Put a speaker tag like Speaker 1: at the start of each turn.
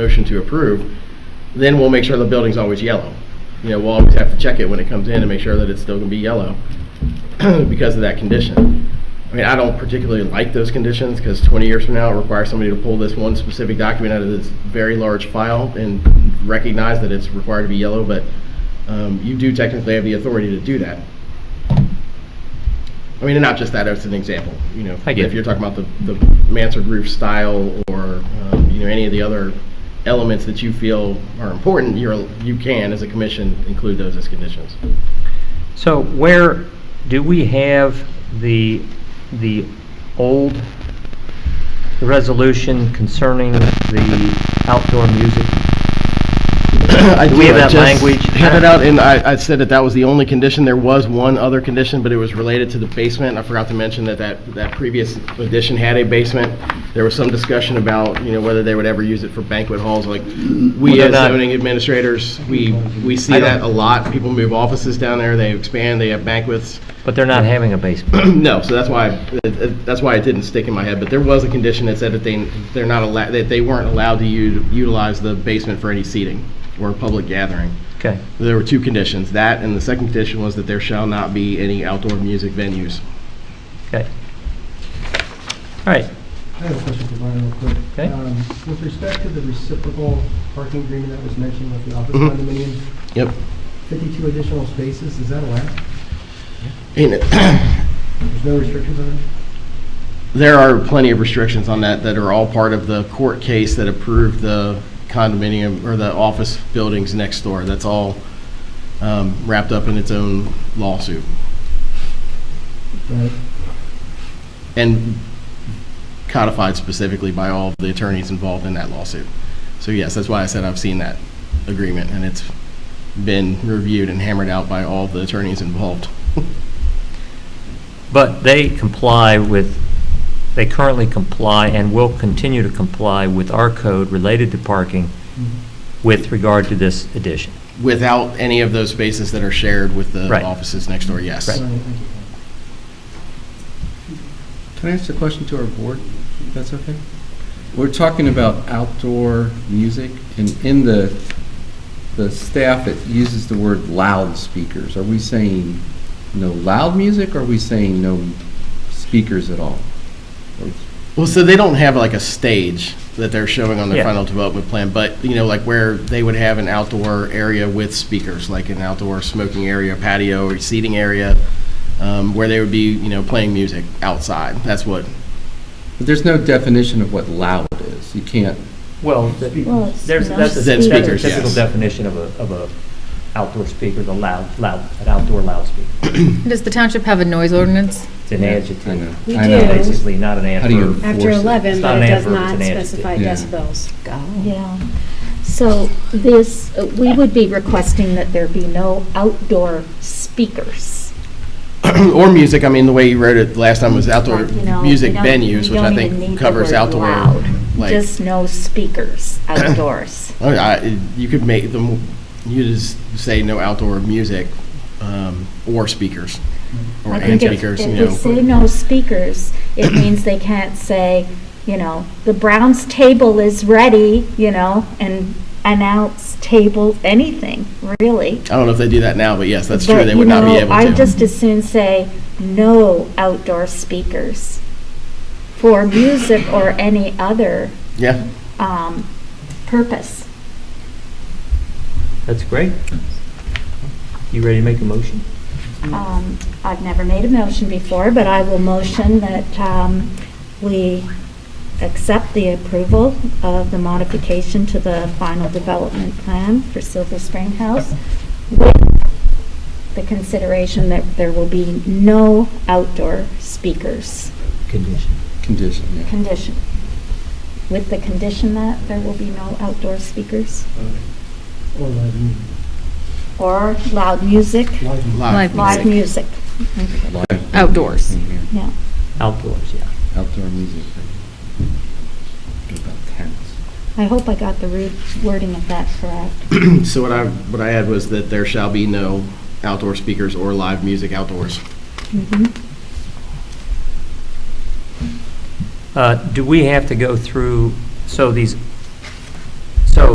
Speaker 1: motion to approve, then we'll make sure the building's always yellow. You know, we'll always have to check it when it comes in and make sure that it's still gonna be yellow because of that condition. I mean, I don't particularly like those conditions because 20 years from now, it requires somebody to pull this one specific document out of this very large file and recognize that it's required to be yellow, but um, you do technically have the authority to do that. I mean, and not just that, as an example, you know.
Speaker 2: I get
Speaker 1: If
Speaker 2: it.
Speaker 1: you're talking about the the mansard roof style or, um, you know, any of the other elements that you feel are important, you're, you can, as a commission, include those as conditions.
Speaker 2: So where, do we have the, the old resolution concerning the outdoor music?
Speaker 1: I
Speaker 2: Do we have
Speaker 1: I
Speaker 2: that
Speaker 1: just
Speaker 2: language?
Speaker 1: Had it out, and I, I said that that was the only condition. There was one other condition, but it was related to the basement. I forgot to mention that that, that previous addition had a basement. There was some discussion about, you know, whether they would ever use it for banquet halls, like,
Speaker 2: Well,
Speaker 1: we
Speaker 2: they're
Speaker 1: as
Speaker 2: not-
Speaker 1: zoning administrators, we, we see
Speaker 2: I don't-
Speaker 1: that a lot. People move offices down there, they expand, they have banquets.
Speaker 2: But they're not having a basement.
Speaker 1: No, so that's why, it- it- that's why it didn't stick in my head, but there was a condition that said that they, they're not allowed, that they weren't allowed to u- utilize the basement for any seating or public gathering.
Speaker 2: Okay.
Speaker 1: There were two conditions, that and the second condition was that there shall not be any outdoor music venues.
Speaker 2: Okay. All right,
Speaker 3: I have a question for Brian real quick.
Speaker 2: Okay.
Speaker 3: Um, With respect to the reciprocal parking agreement that was mentioned with the office
Speaker 1: Mhm.
Speaker 3: condominium,
Speaker 1: Yep.
Speaker 3: 52 additional spaces, is that allowed?
Speaker 1: And it-
Speaker 3: There's no restrictions on it?
Speaker 1: there are plenty of restrictions on that that are all part of the court case that approved the condominium or the office buildings next door. That's all um, wrapped up in its own lawsuit.
Speaker 3: Right.
Speaker 1: and codified specifically by all of the attorneys involved in that lawsuit. So yes, that's why I said I've seen that agreement, and it's been reviewed and hammered out by all the attorneys involved.
Speaker 2: but they comply with, they currently comply and will continue to comply with our code related to parking with regard to this addition.
Speaker 1: Without any of those spaces that are shared with the
Speaker 2: Right.
Speaker 1: offices next door, yes.
Speaker 3: All
Speaker 2: Right.
Speaker 3: right, thank you.
Speaker 4: Can I ask a question to our board, if that's okay? We're talking about outdoor music, and in the, the staff, it uses the word loudspeakers. Are we saying no loud music, or are we saying no speakers at all? Or-
Speaker 1: Well, so they don't have like a stage that they're showing on their
Speaker 2: Yeah.
Speaker 1: final development plan, but, you know, like where they would have an outdoor area with speakers, like an outdoor smoking area, patio, or seating area, um, where they would be, you know, playing music outside. That's what
Speaker 4: But there's no definition of what loud is. You can't,
Speaker 2: Well,
Speaker 5: Well, it's
Speaker 2: There's, that's a,
Speaker 5: not
Speaker 2: that's a
Speaker 1: speakers,
Speaker 2: typical
Speaker 1: yes.
Speaker 2: definition of a, of a outdoor speaker, the loud, loud, an outdoor loudspeaker.
Speaker 6: Does the township have a noise ordinance?
Speaker 2: It's an
Speaker 4: I
Speaker 2: adjective,
Speaker 4: know.
Speaker 5: We
Speaker 4: I know.
Speaker 5: do.
Speaker 2: basically, not an
Speaker 4: How do you
Speaker 2: adverb.
Speaker 4: force
Speaker 7: After
Speaker 4: it?
Speaker 7: 11,
Speaker 2: It's not
Speaker 7: but
Speaker 2: an
Speaker 7: it does
Speaker 2: adverb,
Speaker 7: not
Speaker 2: it's an adjective.
Speaker 7: specify
Speaker 4: Yeah.
Speaker 5: Yeah.
Speaker 7: decibels.
Speaker 5: So this, uh, we would be requesting that there be no outdoor speakers.
Speaker 1: or music. I mean, the way you wrote it last time was outdoor
Speaker 5: You know,
Speaker 1: music
Speaker 5: we don't-
Speaker 1: venues,
Speaker 5: we
Speaker 1: which I
Speaker 5: don't even need
Speaker 1: think
Speaker 5: the
Speaker 1: covers
Speaker 5: word
Speaker 1: outdoor.
Speaker 5: loud.
Speaker 1: Like,
Speaker 5: Just no speakers outdoors.
Speaker 1: I mean, Oh, I- you could make them. You just say no outdoor music um, or speakers or
Speaker 5: I
Speaker 1: and
Speaker 5: think if-
Speaker 1: speakers. you
Speaker 5: If
Speaker 1: know,
Speaker 5: we say no speakers, it means they can't say, you know, the Browns table is ready, you know, and announce table, anything, really.
Speaker 1: I don't know if they do that now, but yes, that's true.
Speaker 5: But,
Speaker 1: They
Speaker 5: you
Speaker 1: would not be
Speaker 5: know,
Speaker 1: able
Speaker 5: I
Speaker 1: to.
Speaker 5: just as soon say, no outdoor speakers for music or any other
Speaker 1: yeah,
Speaker 5: um, purpose.
Speaker 2: That's great. You ready to make a motion?
Speaker 5: Um, I've never made a motion before, but I will motion that um, we accept the approval of the modification to the final development plan for Silver Spring House with the consideration that there will be no outdoor speakers
Speaker 2: Condition.
Speaker 4: condition, yeah.
Speaker 5: condition. With the condition that there will be no outdoor speakers
Speaker 3: Or live music.
Speaker 5: or loud music,
Speaker 3: Live music.
Speaker 1: live.
Speaker 5: live music.
Speaker 4: Live
Speaker 6: Outdoors.
Speaker 4: in here.
Speaker 5: Yeah.
Speaker 2: Outdoors, yeah.
Speaker 4: Outdoor music. What about tents?
Speaker 5: I hope I got the root wording of that correct.
Speaker 1: So what I what I had was that there shall be no outdoor speakers or live music outdoors.
Speaker 2: Uh, do we have to go through, so these